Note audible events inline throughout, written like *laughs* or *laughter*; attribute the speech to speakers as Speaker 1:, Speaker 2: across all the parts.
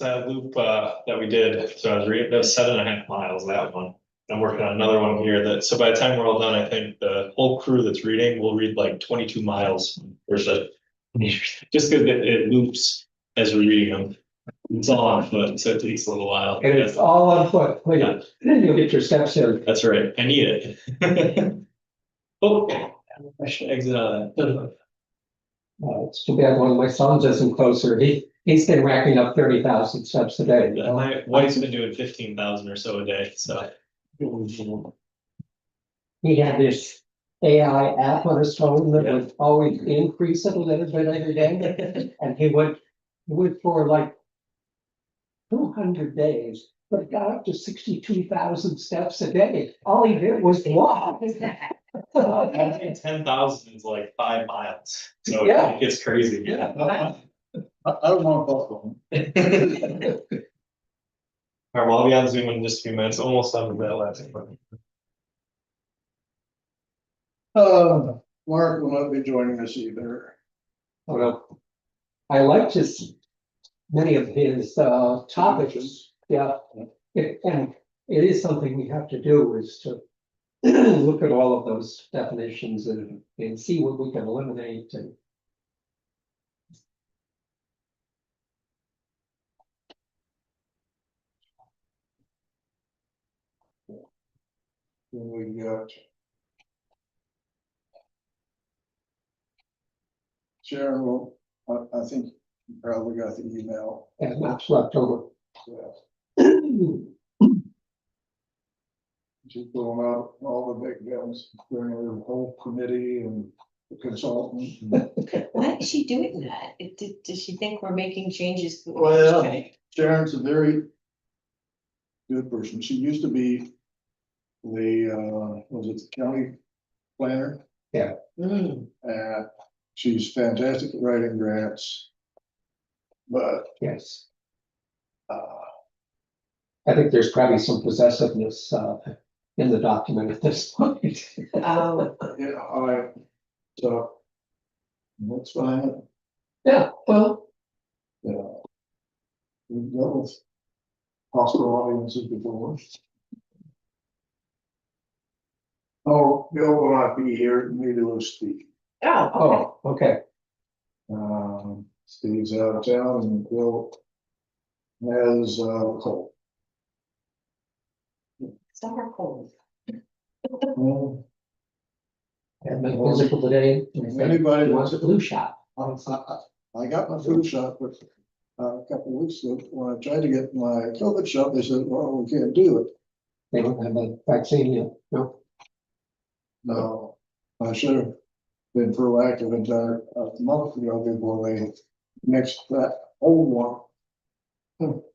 Speaker 1: that loop, uh, that we did, so I was reading, that was seven and a half miles, that one. I'm working on another one here that, so by the time we're all done, I think the whole crew that's reading will read like twenty-two miles or so. Just because it, it loops as we're reading them. It's all on foot, so it takes a little while.
Speaker 2: And it's all on foot, Well,
Speaker 1: Yeah.
Speaker 2: then you'll get your steps in.
Speaker 1: That's right, I need it. *laughs* Oh, I should exit out of that.
Speaker 2: *laughs* Uh, it's too bad one of my sons isn't closer. He, he's been racking up thirty thousand steps a day. you know?
Speaker 1: My wife's been doing fifteen thousand or so a day,
Speaker 2: *laughs*
Speaker 1: so.
Speaker 2: He had this AI app on his phone that would always increase it a little bit every day. And he went, he went for like two hundred days, but got up to sixty-two thousand steps a day. All he did was walk.
Speaker 1: I
Speaker 2: *laughs*
Speaker 1: think ten thousand is like five miles, so
Speaker 2: Yeah.
Speaker 1: it gets crazy.
Speaker 2: Yeah.
Speaker 3: I, I don't want to postpone. *laughs*
Speaker 1: All right, well, I'll be on Zoom in just a few minutes, almost done with that last one.
Speaker 3: Uh, Mark will not be joining us either.
Speaker 2: Oh, no. I liked his, many of his uh topics, yeah. It- And it is something we have to do is to *clears throat* look at all of those definitions and and see what we can eliminate and.
Speaker 3: Then we got. Sharon will, I, I think you probably got the email.
Speaker 2: And maps left over. *clears throat*
Speaker 3: Yeah.
Speaker 2: Well,
Speaker 3: She's pulling out all the big guns, during her whole committee and the consultant.
Speaker 4: Why is she doing that? It did, does she think we're making changes? to what we're
Speaker 3: Well-
Speaker 4: doing?
Speaker 3: Sharon's a very good person. She used to be the, uh, was it the county planner?
Speaker 4: Mm,
Speaker 3: Uh, she's fantastic at writing grants. But,
Speaker 2: Yes,
Speaker 3: uh,
Speaker 2: I think there's probably some possessiveness uh in the document at this point. *laughs*
Speaker 4: oh,
Speaker 3: yeah, I, so. That's fine,
Speaker 2: Yeah, well,
Speaker 3: you know. We've dealt with hospital audiences before. Oh, Bill will not be here, neither will Steve.
Speaker 4: oh, okay.
Speaker 2: oh, okay,
Speaker 3: Um, Steve's out of town and Bill has, uh, cold.
Speaker 4: Summer cold.
Speaker 3: Well,
Speaker 2: and then musical today.
Speaker 3: If anybody
Speaker 2: He
Speaker 3: wants
Speaker 2: wants a blue shot.
Speaker 3: Um, I, I, I got my flu shot, but uh, a couple of weeks ago, when I tried to get my COVID shot, they said, well, we can't do it.
Speaker 2: They don't have a vaccine yet, no.
Speaker 3: No, I should have been proactive and done it a month ago before they mixed that old one. *sighs*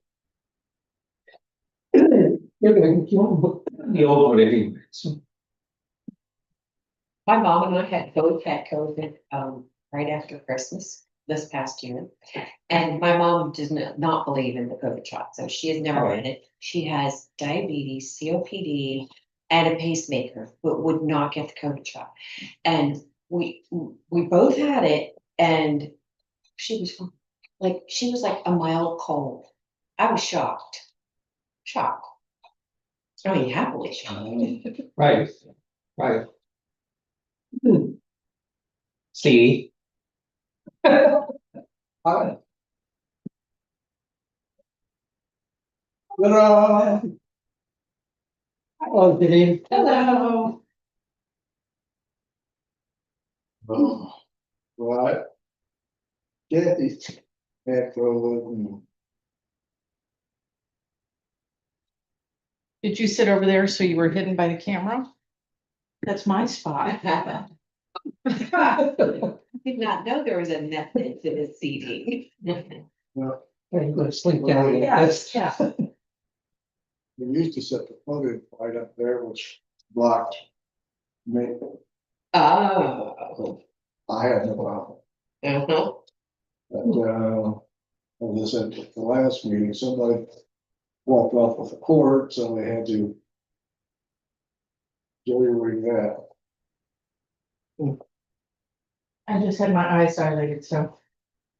Speaker 2: You're gonna, you won't book the old one anyway, so.
Speaker 4: My mom and I had both had COVID, um, right after Christmas this past year. And my mom does not, not believe in the COVID shot, so she has never had it. She has diabetes, COPD, and a pacemaker, but would not get the COVID shot. And we, we both had it and she was fine. like, she was like a mild cold. I was shocked, shocked. I mean, happily shocked.
Speaker 2: Right, right. Hmm. See? *laughs* Oh,
Speaker 3: I- Ta-da!
Speaker 2: Hello, Denise.
Speaker 4: *laughs* Hello.
Speaker 3: Oh, Right. Kathy had COVID and
Speaker 5: Did you sit over there so you were hidden by the camera? That's my *laughs* spot.
Speaker 4: I Did not know there was a method to this seating.
Speaker 2: I'm gonna sleep down here.
Speaker 3: Yes,
Speaker 2: That's-
Speaker 3: We used to set the photo right up there, which blocked me.
Speaker 4: Oh.
Speaker 3: I had no problem.
Speaker 4: Uh-huh.
Speaker 3: But, uh, as I said, at the last meeting, somebody walked off with a cord, so they had to jury rig that.
Speaker 5: I just had my eyes dilated, so